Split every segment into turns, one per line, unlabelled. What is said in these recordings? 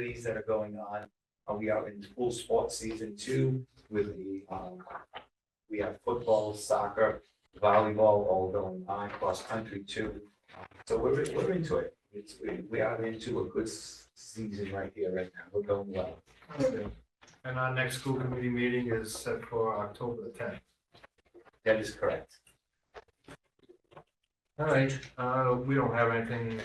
activities that are going on. Uh, we are in full sports season two with the, um, we have football, soccer, volleyball all going on, cross country too. So we're, we're into it. It's, we, we are into a good s- season right here, right now. We're going well.
And our next school committee meeting is set for October the tenth.
That is correct.
All right, uh, we don't have anything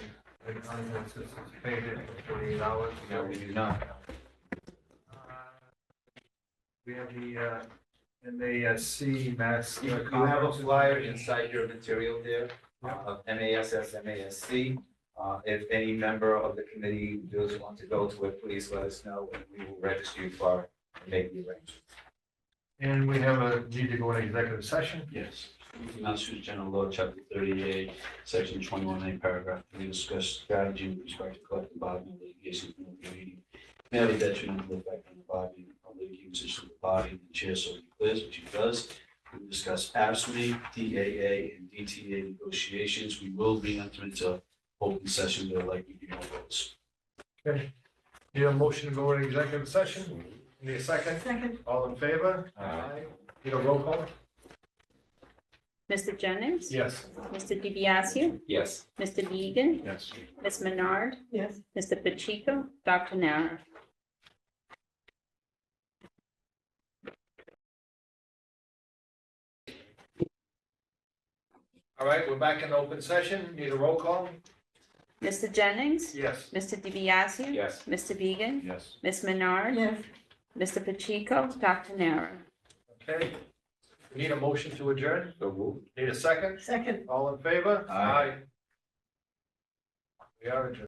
unanticipated for forty-eight hours.
No, we do not.
Uh, We have the, uh, MASC Mass.
You you have a flyer inside your material there uh, of MASS, MASC. Uh, If any member of the committee does want to go to it, please let us know and we will register you for it and make the arrangements.
And we have a need to go in executive session.
Yes. Massachusetts General Law, Chapter 38, Section 21A, Paragraph 3, discuss strategy with respect to collective bargaining litigation from the meeting. May have a detrimental effect on the bargaining, on litigation position of the body, and the chair so declares, which he does. We discuss ASME, DAA, and DTA negotiations. We will be entering into open session, there likely be no votes.
Need a motion to go in executive session? Need a second?
Second.
All in favor? Need a roll call?
Mr. Jennings?
Yes.
Mr. DiBiaseu?
Yes.
Mr. Beegan?
Yes.
Ms. Menard?
Yes.
Mr. Pacheco? Dr. Nara?
All right, we're back in open session. Need a roll call?
Mr. Jennings?
Yes.
Mr. DiBiaseu?
Yes.
Mr. Beegan?
Yes.
Ms. Menard?
Yes.
Mr. Pacheco? Dr. Nara?
Okay. We Need a motion to adjourn?
So moved.
Need a second?
Second.
All in favor?
Aye.
We are adjourned.